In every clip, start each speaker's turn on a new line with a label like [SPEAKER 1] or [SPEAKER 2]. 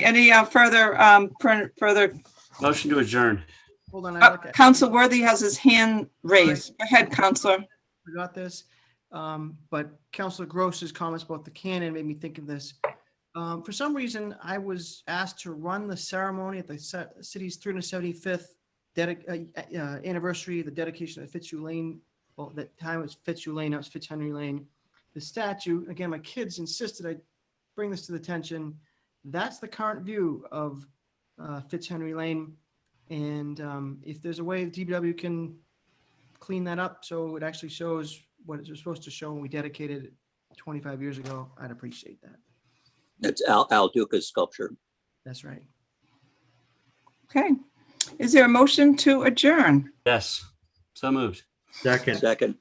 [SPEAKER 1] Any uh, further, um, fur- further,
[SPEAKER 2] Motion to adjourn.
[SPEAKER 3] Hold on, I
[SPEAKER 1] uh,
[SPEAKER 3] look at,
[SPEAKER 1] Counsel Worthy has his hand raised. Go ahead, Counselor.
[SPEAKER 3] forgot this. Um, but Counselor Gross's comments about the cannon made me think of this. Um, for some reason, I was asked to run the ceremony at the ci- city's three hundred seventy-fifth dedic, uh, uh, anniversary, the dedication of Fitzhugh Lane. Well, that time it was Fitzhugh Lane, now it's Fitzhenry Lane. The statue, again, my kids insisted I bring this to the attention. That's the current view of, uh, Fitzhenry Lane. And, um, if there's a way the DPW can clean that up so it actually shows what it was supposed to show when we dedicated it 25 years ago, I'd appreciate that.
[SPEAKER 4] It's Al, Al Duca's sculpture.
[SPEAKER 3] That's right.
[SPEAKER 1] Okay. Is there a motion to adjourn?
[SPEAKER 2] Yes. So moved.
[SPEAKER 5] Second,
[SPEAKER 4] Second,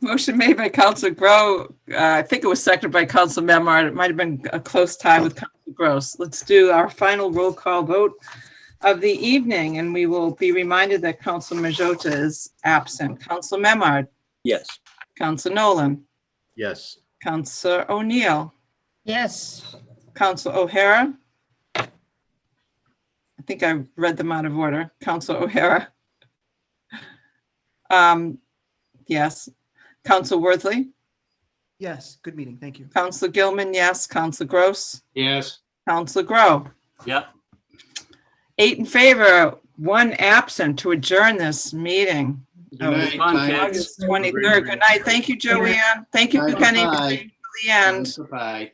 [SPEAKER 1] Motion made by Counsel Grow. uh, I think it was seconded by Counsel Memard. It might have been a close tie with Counsel Gross. Let's do our final roll call vote of the evening, and we will be reminded that Counsel Majota is absent. Counsel Memard,
[SPEAKER 4] yes.
[SPEAKER 1] Counsel Nolan,
[SPEAKER 5] yes.
[SPEAKER 1] Counsel O'Neill,
[SPEAKER 6] Yes.
[SPEAKER 1] Counsel O'Hara. I think I read them out of order. Counsel O'Hara. Um, Yes. Counsel Worthley.
[SPEAKER 3] Yes, good meeting. Thank you.
[SPEAKER 1] Council Gilman, yes. Council Gross.
[SPEAKER 7] Yes.
[SPEAKER 1] Council Grow.
[SPEAKER 2] Yep.
[SPEAKER 1] Eight in favor, one absent to adjourn this meeting.
[SPEAKER 7] Good night,
[SPEAKER 2] Fun,
[SPEAKER 7] thanks.
[SPEAKER 2] kids.
[SPEAKER 1] August 23rd. Good night. Thank you, Joanne. Thank you for
[SPEAKER 7] Bye-bye.
[SPEAKER 1] coming to the end.
[SPEAKER 7] Bye.